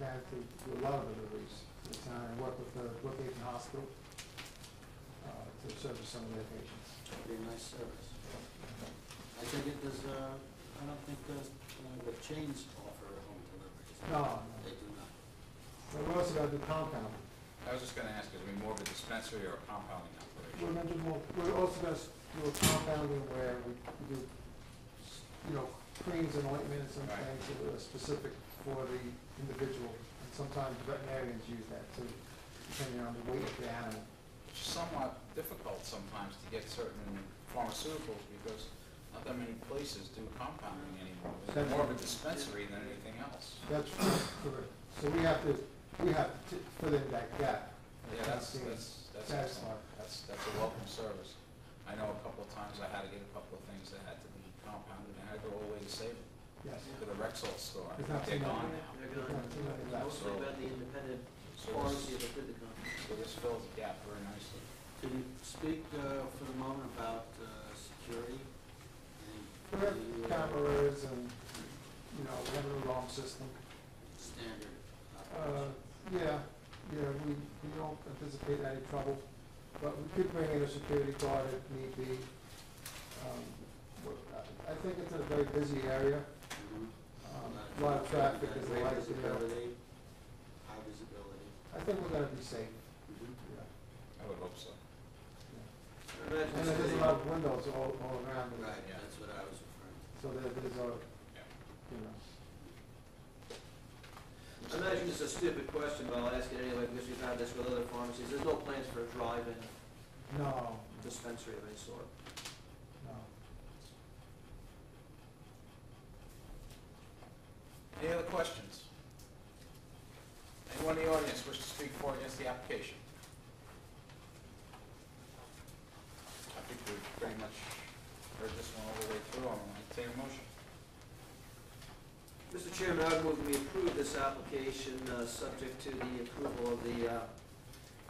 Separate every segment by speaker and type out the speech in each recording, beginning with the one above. Speaker 1: have to do a lot of deliveries to the town and work with the Brookhaven Hospital uh, to service some of their patients.
Speaker 2: Be a nice service. I think it does, uh, I don't think does, uh, the chains offer home deliveries.
Speaker 1: No, no.
Speaker 2: They do not.
Speaker 1: But we're also gonna do compounding.
Speaker 3: I was just gonna ask, is it more of a dispensary or a compounding operation?
Speaker 1: We're gonna do more, we're also gonna s- do a compounding where we do, s- you know, creams and ointments and
Speaker 3: Right.
Speaker 1: things that are specific for the individual. And sometimes veterinarians use that too, depending on the weight of the animal.
Speaker 3: It's somewhat difficult sometimes to get certain pharmaceuticals because not that many places do compounding anymore. It's more of a dispensary than anything else.
Speaker 1: That's correct. So we have to, we have to fill in that gap.
Speaker 3: Yeah, that's, that's, that's excellent.
Speaker 1: Satisfied.
Speaker 3: That's, that's a welcome service. I know a couple of times I had to get a couple of things that had to be compounded, and I had to go all the way to save
Speaker 1: Yes.
Speaker 3: to the Rexall store.
Speaker 1: It's not
Speaker 3: They're
Speaker 1: too
Speaker 3: gone
Speaker 1: long.
Speaker 3: now.
Speaker 4: They're gone. Mostly about the independent
Speaker 3: So
Speaker 4: pharmacy
Speaker 3: this-
Speaker 4: that did the contract.
Speaker 3: so this fills the gap very nicely.
Speaker 2: Can you speak uh, for the moment about uh, security?
Speaker 1: We
Speaker 2: and
Speaker 1: have
Speaker 2: the, uh,
Speaker 1: cameras and, you know, we have an alarm system.
Speaker 2: Standard.
Speaker 1: Uh, yeah, yeah, we, we don't anticipate any trouble, but we could bring in a security guard if need be. Um, we're- I- I think it's a very busy area,
Speaker 2: Mhm.
Speaker 1: um, a lot of traffic is
Speaker 2: Great
Speaker 1: light, you know.
Speaker 2: visibility, High visibility.
Speaker 1: I think we're gonna be safe,
Speaker 2: Mhm.
Speaker 1: yeah.
Speaker 3: I would hope so.
Speaker 1: yeah.
Speaker 4: Imagine
Speaker 1: And there's a
Speaker 4: sitting-
Speaker 1: lot of windows all, all around it.
Speaker 2: Right, that's what I was referring to.
Speaker 1: So there, there's a,
Speaker 3: Yeah.
Speaker 1: you know.
Speaker 4: Imagine it's a stupid question, but I'll ask it anyway because we've had this with other pharmacies. There's no plans for a drive-in
Speaker 1: No,
Speaker 4: dispensary of any sort.
Speaker 1: no.
Speaker 3: Any other questions? Anyone in the audience wish to speak for or against the application? I think we've pretty much heard this one all the way through. I'm going to take a motion.
Speaker 4: Mr. Chairman, I would move we approve this application, uh, subject to the approval of the uh,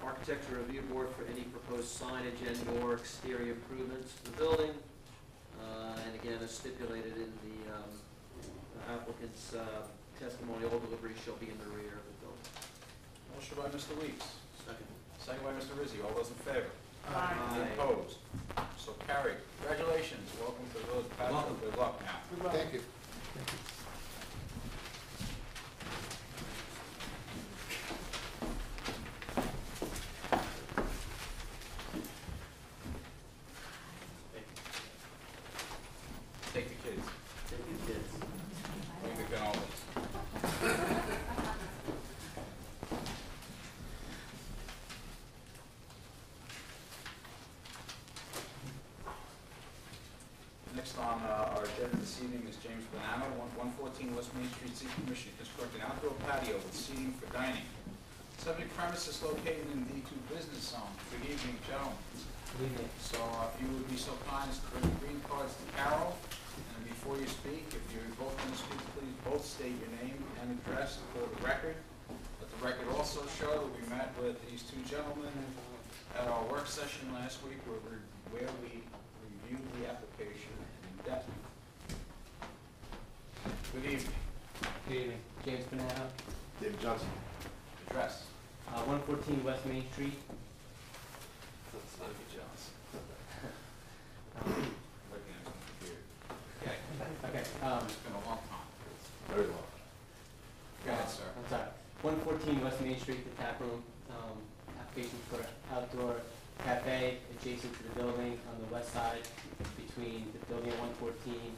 Speaker 4: Architecture Review Board for any proposed signage and/or exterior improvements to the building. Uh, And again, as stipulated in the um, applicant's uh, testimony, all deliveries shall be in the rear of the building.
Speaker 3: Motion by Mr. Weeks,
Speaker 2: Second.
Speaker 3: second by Mr. Rizzi. All those in favor?
Speaker 4: Aye.
Speaker 3: Opposed? So carried. Congratulations. Welcome to the village of Patchogue. Good luck now.
Speaker 1: Thank you.
Speaker 3: Take the kids.
Speaker 2: Take your kids.
Speaker 3: We can always. Next on uh, our agenda this evening is James Banano, one- 114 West Main Street, seeking permission to construct an outdoor patio with seating for dining. Subject premises located in D2 Business Zone. Good evening, gentlemen. So uh, if you would be so kind as to bring the green cards to Carol, and before you speak, if you're both going to speak, please both state your name and address for the record. Let the record also show that we met with these two gentlemen at our work session last week where we, where we reviewed the application in depth. Good evening.
Speaker 5: Good evening, James Banana,
Speaker 6: David Johnson.
Speaker 3: Address.
Speaker 5: uh, one fourteen West Main Street.
Speaker 3: Let's not be jealous.
Speaker 5: Um,
Speaker 3: Looking at my computer. Okay,
Speaker 5: Okay, um,
Speaker 3: it's been a long time.
Speaker 6: Very long.
Speaker 3: Go ahead, sir.
Speaker 5: I'm sorry, one fourteen West Main Street, the tap room, um, application for outdoor cafe adjacent to the building on the west side between the building at one fourteen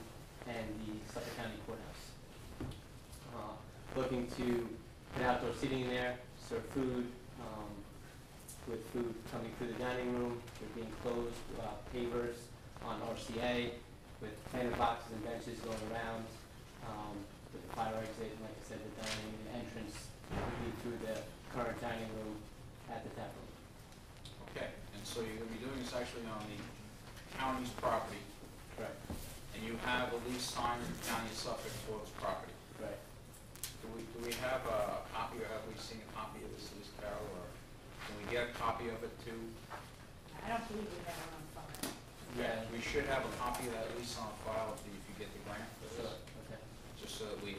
Speaker 5: and the Suffolk County Courthouse. Uh, Looking to put outdoor seating in there, serve food, um, with food coming through the dining room, they're being closed, uh, pavers on RCA, with planter boxes and benches going around, um, with the fire exit, and like I said, the dining, the entrance would be through the current dining room at the tap room.
Speaker 3: Okay, and so you're gonna be doing this actually on the county's property,
Speaker 5: Correct.
Speaker 3: and you have a lease signed in the county of Suffolk for this property.
Speaker 5: Right.
Speaker 3: Do we, do we have a copy, or have we seen a copy of this lease, Carol, or can we get a copy of it too?
Speaker 7: I don't believe we have it on file.
Speaker 5: Yeah,
Speaker 3: We should have a copy of that lease on file if you get the grant for this,
Speaker 5: sure, okay.
Speaker 3: just so that we